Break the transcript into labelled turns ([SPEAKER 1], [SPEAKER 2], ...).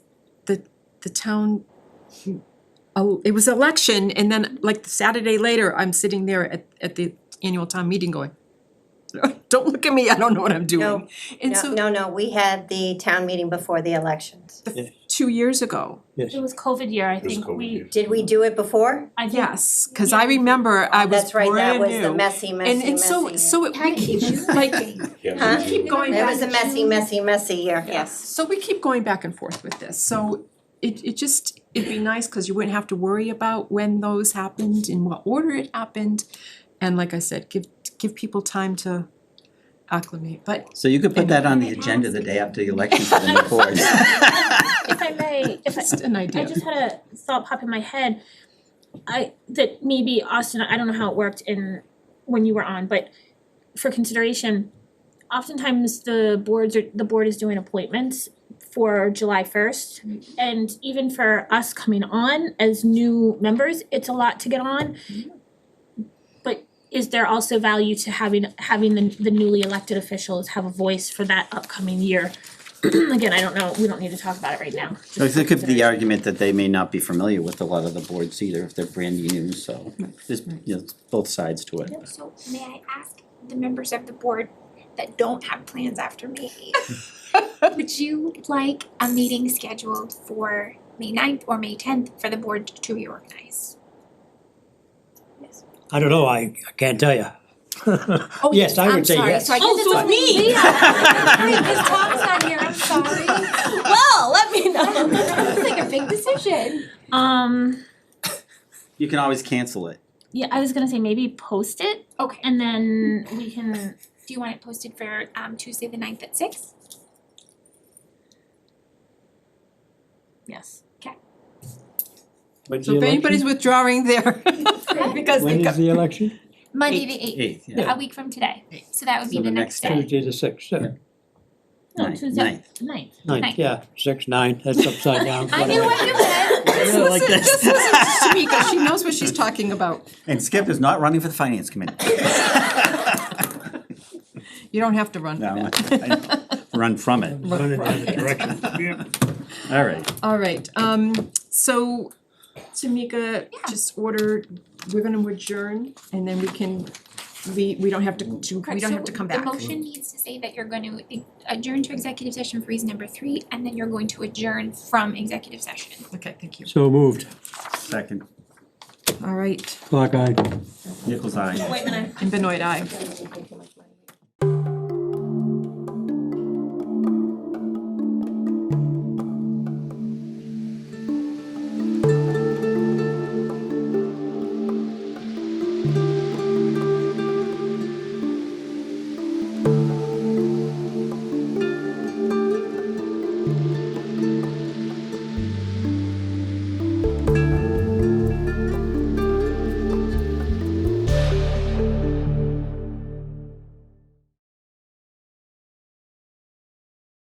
[SPEAKER 1] the town, oh, it was election, and then like the Saturday later, I'm sitting there at, at the annual town meeting going, don't look at me, I don't know what I'm doing. And
[SPEAKER 2] No,
[SPEAKER 1] so,
[SPEAKER 2] no, no, we had the town meeting before the elections.
[SPEAKER 1] two years ago,
[SPEAKER 3] Yes.
[SPEAKER 4] It was COVID year, I
[SPEAKER 5] It was
[SPEAKER 4] think
[SPEAKER 5] COVID
[SPEAKER 4] we,
[SPEAKER 5] year.
[SPEAKER 2] Did we do it before?
[SPEAKER 4] I think.
[SPEAKER 1] yes, cause I remember I was
[SPEAKER 2] That's right,
[SPEAKER 1] brand new.
[SPEAKER 2] that was the messy, messy,
[SPEAKER 1] And
[SPEAKER 2] messy year.
[SPEAKER 1] and so, so it, we keep like,
[SPEAKER 5] Yeah,
[SPEAKER 2] Huh?
[SPEAKER 5] we-
[SPEAKER 1] keep going
[SPEAKER 2] That
[SPEAKER 1] back
[SPEAKER 2] was a messy, messy, messy year, yes.
[SPEAKER 1] So we keep going back and forth with this, so it it just, it'd be nice, cause you wouldn't have to worry about when those happened, in what order it happened. And like I said, give give people time to acclimate, but
[SPEAKER 3] So you could put that on the agenda the day after the election for the new board.
[SPEAKER 4] If I may, if I,
[SPEAKER 1] just an
[SPEAKER 4] I
[SPEAKER 1] idea.
[SPEAKER 4] just had a thought pop in my head. I that maybe Austin, I don't know how it worked in when you were on, but for consideration, oftentimes the boards are the board is doing appointments for July first. And even for us coming on as new members, it's a lot to get on. But is there also value to having having the the newly elected officials have a voice for that upcoming year? Again, I don't know, we don't need to talk about it right now. just
[SPEAKER 3] Because there
[SPEAKER 4] for
[SPEAKER 3] could be the
[SPEAKER 4] consideration.
[SPEAKER 3] argument that they may not be familiar with a lot of the boards either, if they're brand new, so there's, you know, both sides to it.
[SPEAKER 6] So may I ask the members of the board that don't have plans after May eighth? Would you like a meeting scheduled for May 9th or May tenth for the board to reorganize?
[SPEAKER 7] I don't know, I, I can't tell you.
[SPEAKER 6] Oh,
[SPEAKER 7] Yes, I would say
[SPEAKER 6] I'm sorry,
[SPEAKER 7] yes.
[SPEAKER 6] so I guess
[SPEAKER 4] Oh,
[SPEAKER 6] it's.
[SPEAKER 4] so it's me.
[SPEAKER 6] Yeah. Wait, 'cause Tom's not here, I'm sorry.
[SPEAKER 4] Well, let me
[SPEAKER 6] It's like a big decision.
[SPEAKER 4] Um,
[SPEAKER 3] You can always cancel it.
[SPEAKER 4] yeah, I was gonna say maybe post it
[SPEAKER 6] Okay,
[SPEAKER 4] and then we can,
[SPEAKER 6] do you want it posted for um Tuesday the 9th at six?
[SPEAKER 4] yes.
[SPEAKER 1] So if anybody's withdrawing there, because they
[SPEAKER 7] When
[SPEAKER 1] got.
[SPEAKER 7] is the election?
[SPEAKER 6] Monday the eighth,
[SPEAKER 3] Eighth, yeah.
[SPEAKER 6] a week from today, so that would be
[SPEAKER 3] So
[SPEAKER 6] the next day.
[SPEAKER 7] Tuesday the sixth, yeah.
[SPEAKER 4] No,
[SPEAKER 3] Ninth,
[SPEAKER 4] Tuesday.
[SPEAKER 3] ninth.
[SPEAKER 4] Ninth.
[SPEAKER 7] Ninth,
[SPEAKER 6] Ninth.
[SPEAKER 7] yeah, six, nine, that's upside down.
[SPEAKER 6] I knew what you meant.
[SPEAKER 1] Just
[SPEAKER 7] Yeah, like
[SPEAKER 1] listen,
[SPEAKER 7] that.
[SPEAKER 1] just listen to Shamika, she knows what she's talking about.
[SPEAKER 3] And Skip is not running for the finance committee.
[SPEAKER 1] You don't have to run for
[SPEAKER 3] No,
[SPEAKER 1] that.
[SPEAKER 3] I know. run from it.
[SPEAKER 7] Run in the direction.
[SPEAKER 3] All right.
[SPEAKER 1] All right, um, so Tamika, just order, we're gonna adjourn and then we can, we, we don't have to, to- we
[SPEAKER 6] Correct,
[SPEAKER 1] don't
[SPEAKER 6] so
[SPEAKER 1] have to come back.
[SPEAKER 6] The motion needs to say that you're going to adjourn to executive session for reason number three, and then you're going to adjourn from executive session.
[SPEAKER 1] Okay, thank you.
[SPEAKER 7] So moved,
[SPEAKER 3] Second,
[SPEAKER 1] All right,
[SPEAKER 7] clock eye.
[SPEAKER 3] Nichols eye.
[SPEAKER 4] Wait a minute.
[SPEAKER 1] and Benoit, aye.